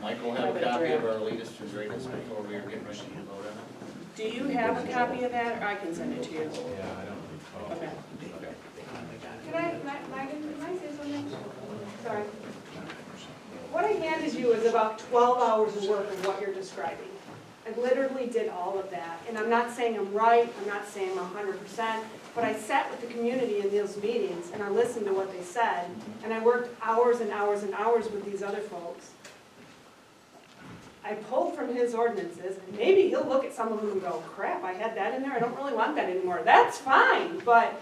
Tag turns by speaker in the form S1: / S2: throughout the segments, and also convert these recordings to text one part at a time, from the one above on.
S1: Mike will have a copy of our latest and greatest before we are getting ready to vote on it.
S2: Do you have a copy of that, or I can send it to you?
S3: Yeah, I don't think so.
S2: Okay.
S4: Can I, Ma- Megan, can I say something? Sorry. What I handed you is about twelve hours of work of what you're describing. I literally did all of that, and I'm not saying I'm right, I'm not saying I'm hundred percent, but I sat with the community in those meetings, and I listened to what they said, and I worked hours and hours and hours with these other folks. I pulled from his ordinances, and maybe he'll look at some of them and go, crap, I had that in there, I don't really want that anymore, that's fine, but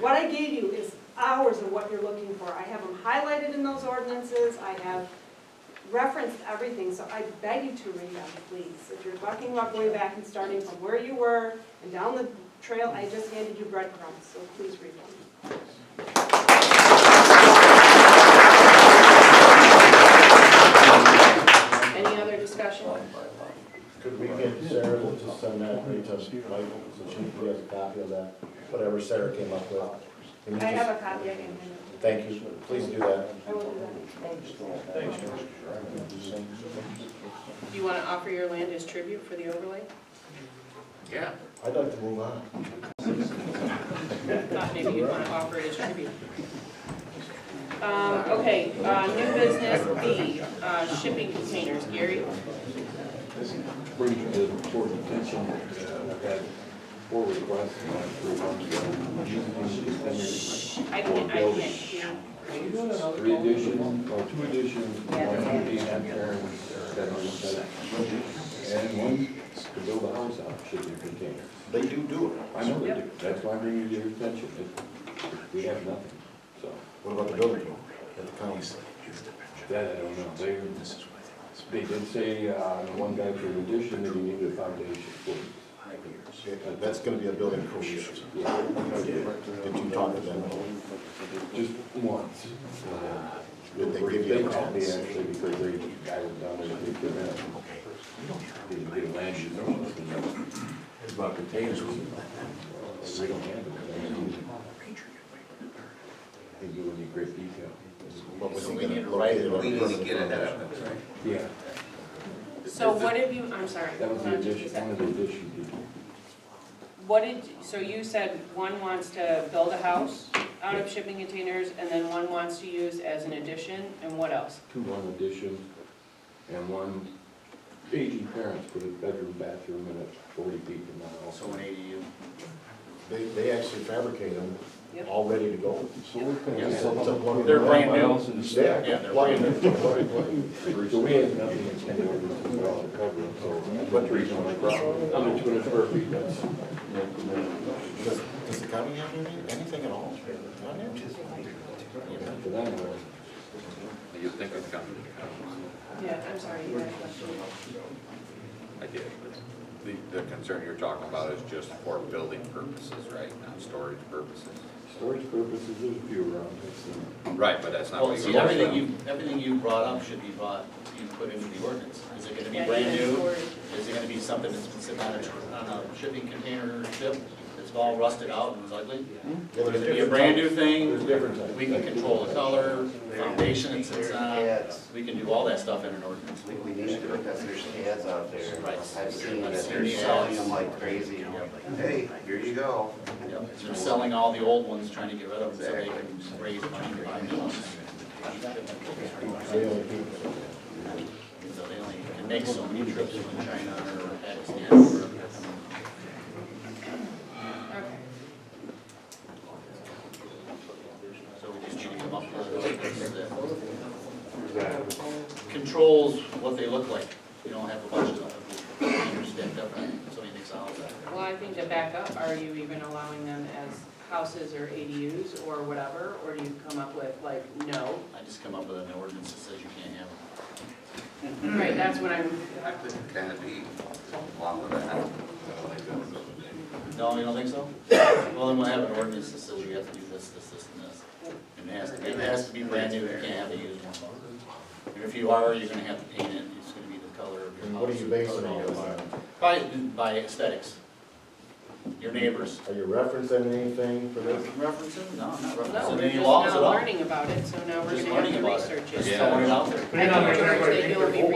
S4: what I gave you is hours of what you're looking for. I have them highlighted in those ordinances, I have referenced everything, so I beg you to read them, please. If you're talking about going back and starting from where you were and down the trail, I just handed you breadcrumbs, so please read them.
S2: Any other discussion?
S5: Could we get Sarah to just send that right to Michael, so she can get a copy of that, whatever Sarah came up with? Can you
S4: I
S5: just-
S4: have a copy, I can hand it.
S5: Thank you, please do that.
S4: I will do that.
S3: Thanks, George.
S2: Do you want to offer your land as tribute for the overlay?
S1: Yeah.
S5: I'd like to move on.
S2: Thought maybe you'd want to offer it as tribute. Um, okay, uh, new business B, uh, shipping containers, Gary.
S6: bring to the board's attention, uh, I've had four requests in the last three months.
S2: I can't, I can't hear.
S6: Three additions, or two additions,
S2: Yeah.
S6: one being on Karen's, that on the side. And one to build a house out, should be contained. They do do it. I know they do, that's why I'm bringing it to your attention, It- we have nothing, so,
S5: What about the building? At the county?
S6: that I don't know, they, they did say, uh, one guy for an addition, that he needed a foundation for it.
S5: Yeah, That's gonna be a building code issue. Did you talk to them?
S6: Just once.
S5: Did they give you a
S6: called me
S5: chance?
S6: actually because they, I was down there to pick them up. They did land uh, you notice and that was- it's about containers. They don't have them. They do it in great detail.
S5: What was
S1: So
S5: he
S1: we need
S5: gonna
S1: to
S5: locate
S1: write
S5: it
S1: it,
S5: on?
S1: we need to get ahead of it, right?
S6: Yeah,
S2: So what have you, I'm sorry.
S6: that was the addition, one of the additions. you did.
S2: What did, so you said one wants to build a house out of shipping containers, and then one wants to use as an addition, and what else?
S6: Two one additions and one aging parents put a bedroom, bathroom in it, forty feet from my house.
S1: So an ADU.
S5: They, they actually fabricate them,
S2: Yep.
S5: all ready to go.
S6: So we're
S1: Yeah.
S6: gonna.
S5: So it's a plug and
S1: They're
S5: play.
S1: brand new.
S5: Yeah.
S1: Yeah, they're
S5: plug and
S1: brand
S5: play.
S6: So we have nothing in ten ordinance at all to cover it, so that's the reason why I brought it. I'm at two hundred square feet, that's.
S5: Does, does the county have any- anything at all? on there?
S6: For them, uh,
S7: You think it's coming?
S2: Yeah, I'm sorry, you had a question.
S7: I did. The, the concern you're talking about is just for building purposes, right, not storage purposes?
S6: storage purposes, there's a few around, that's,
S7: Right, but that's not
S1: Well,
S7: what you're.
S1: see, everything you, everything you brought up should be brought, you put into the ordinance. Is it gonna be brand new? Is it gonna be something that's been sitting on a, on a shipping container ship that's all rusted out and is ugly? Or
S5: Yeah,
S1: is
S5: there's
S1: it be a
S5: different
S1: brand
S5: types.
S1: new thing?
S5: There's different types.
S1: We can control the color, foundation it sits on, we can do all that stuff in an ordinance.
S8: We, we need to, because there's ads out there.
S1: Right.
S8: I've seen that
S1: There's
S8: they're
S1: ads.
S8: selling them like crazy. I'm like, hey, here you go.
S1: Yep. They're selling all the old ones, trying to get rid of them so they can raise money to buy new ones.
S5: They only keep-
S1: So they only can make so many trips from China or Pakistan or
S2: Okay.
S1: So we just need to come up with a ordinance that controls what they look like. You don't have a bunch of them, you're stacked up on so many things out of that.
S2: Well, I think to back up, are you even allowing them as houses or ADUs or whatever, or do you come up with like, no?
S1: I just come up with an ordinance that says you can't have them. Mhm.
S2: Right, that's what I'm,
S8: Can it be along with that?
S1: No, you don't think so? Well, then we'll have an ordinance that says you have to do this, this, this, and this. And it has to be, it has to be brand new, you can't have a used one. And if you are, you're gonna have to paint it, it's gonna be the color of your
S5: And
S1: house.
S5: what are you basing
S1: the color
S5: all
S1: of
S5: this
S1: your
S5: on?
S1: environment. By, by aesthetics. Your neighbors.
S5: Are you referencing anything for this?
S1: Referencing? No, I'm not
S2: no,
S1: referencing
S2: we're just
S1: any laws at
S2: now
S1: all.
S2: learning about it, so now we're
S1: Just
S2: gonna have
S1: learning
S2: to
S1: about it.
S2: research
S1: Just
S2: it.
S7: Yeah.
S1: throwing it out there.
S2: I think George, that you'll be